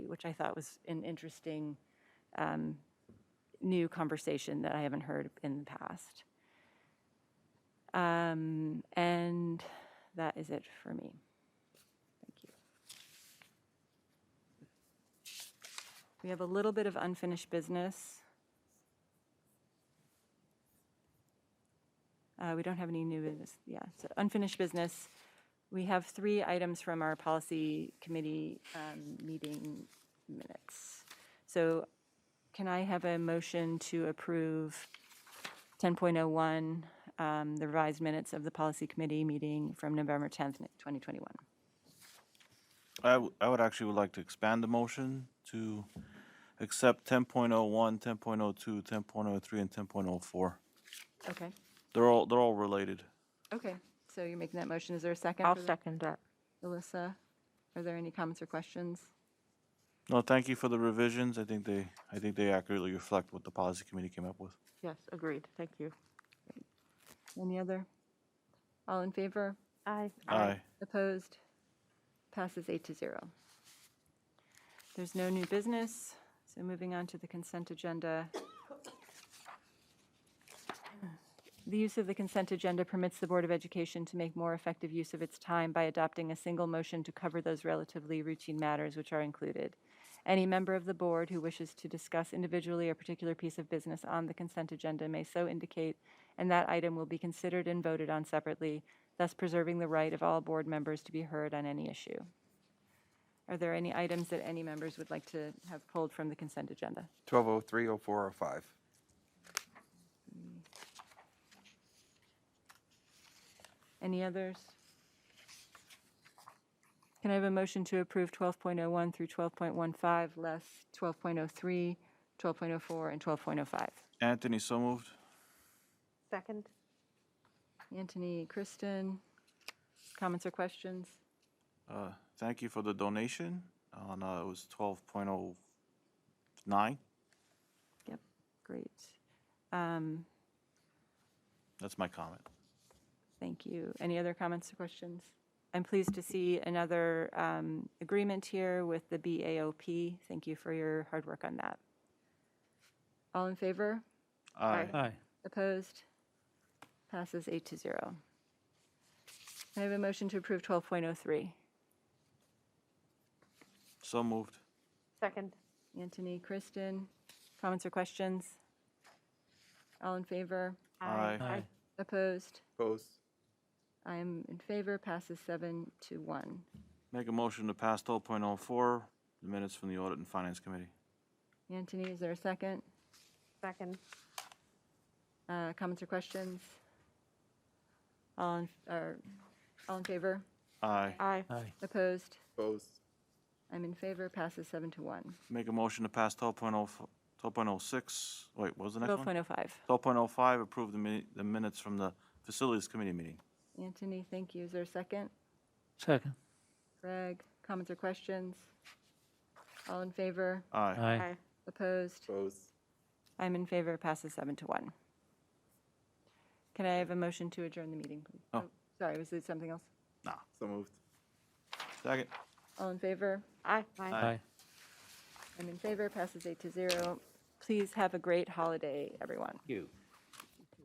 which I thought was an interesting um, new conversation that I haven't heard in the past. Um, And that is it for me. Thank you. We have a little bit of unfinished business. Uh, We don't have any new business, yeah, so unfinished business. We have three items from our policy committee um, meeting minutes. So can I have a motion to approve 10.01, um, the revised minutes of the policy committee meeting from November 10th, 2021? I, w- I would actually would like to expand the motion to accept 10.01, 10.02, 10.03, and 10.04. Okay, They're all, they're all related. okay. So you're making that motion. Is there a second? I'll for that? second that. Alyssa, are there any comments or questions? No, thank you for the revisions. I think they, I think they accurately reflect what the policy committee came up with. Yes, agreed. Thank you. Any other? All in favor? Aye. Aye. Opposed? Passes eight to zero. There's no new business, so moving on to the consent agenda. The use of the consent agenda permits the Board of Education to make more effective use of its time by adopting a single motion to cover those relatively routine matters which are included. Any member of the board who wishes to discuss individually a particular piece of business on the consent agenda may so indicate, and that item will be considered and voted on separately, thus preserving the right of all board members to be heard on any issue. Are there any items that any members would like to have pulled from the consent agenda? 1203, 0405. Any others? Can I have a motion to approve 12.01 through 12.15, less 12.03, 12.04, and 12.05? Anthony, so moved. Second? Anthony, Kristen, comments or questions? Uh, Thank you for the donation on, uh, it was 12.09. Yep, great. Um, That's my comment. Thank you. Any other comments or questions? I'm pleased to see another um, agreement here with the BAOP. Thank you for your hard work on that. All in favor? Aye. Aye. Opposed? Passes eight to zero. May I have a motion to approve 12.03? So moved. Second. Anthony, Kristen, comments or questions? All in favor? Aye. Aye. Opposed? Opposed? I am in favor, passes seven to one. Make a motion to pass 12.04, the minutes from the Audit and Finance Committee. Anthony, is there a second? Second. Uh, Comments or questions? All in, or, all in favor? Aye. Aye. Aye. Opposed? Opposed. I'm in favor, passes seven to one. Make a motion to pass 12.0, 12.06, wait, what was the next one? 12.05. 12.05, approve the mi- the minutes from the Facilities Committee meeting. Anthony, thank you. Is there a second? Second. Greg, comments or questions? All in favor? Aye. Aye. Opposed? Opposed. I'm in favor, passes seven to one. Can I have a motion to adjourn the meeting, please? Oh. Sorry, was it something else? Nah. So moved. Second. All in favor? Aye. Aye. Aye. I'm in favor, passes eight to zero. Please have a great holiday, everyone. You.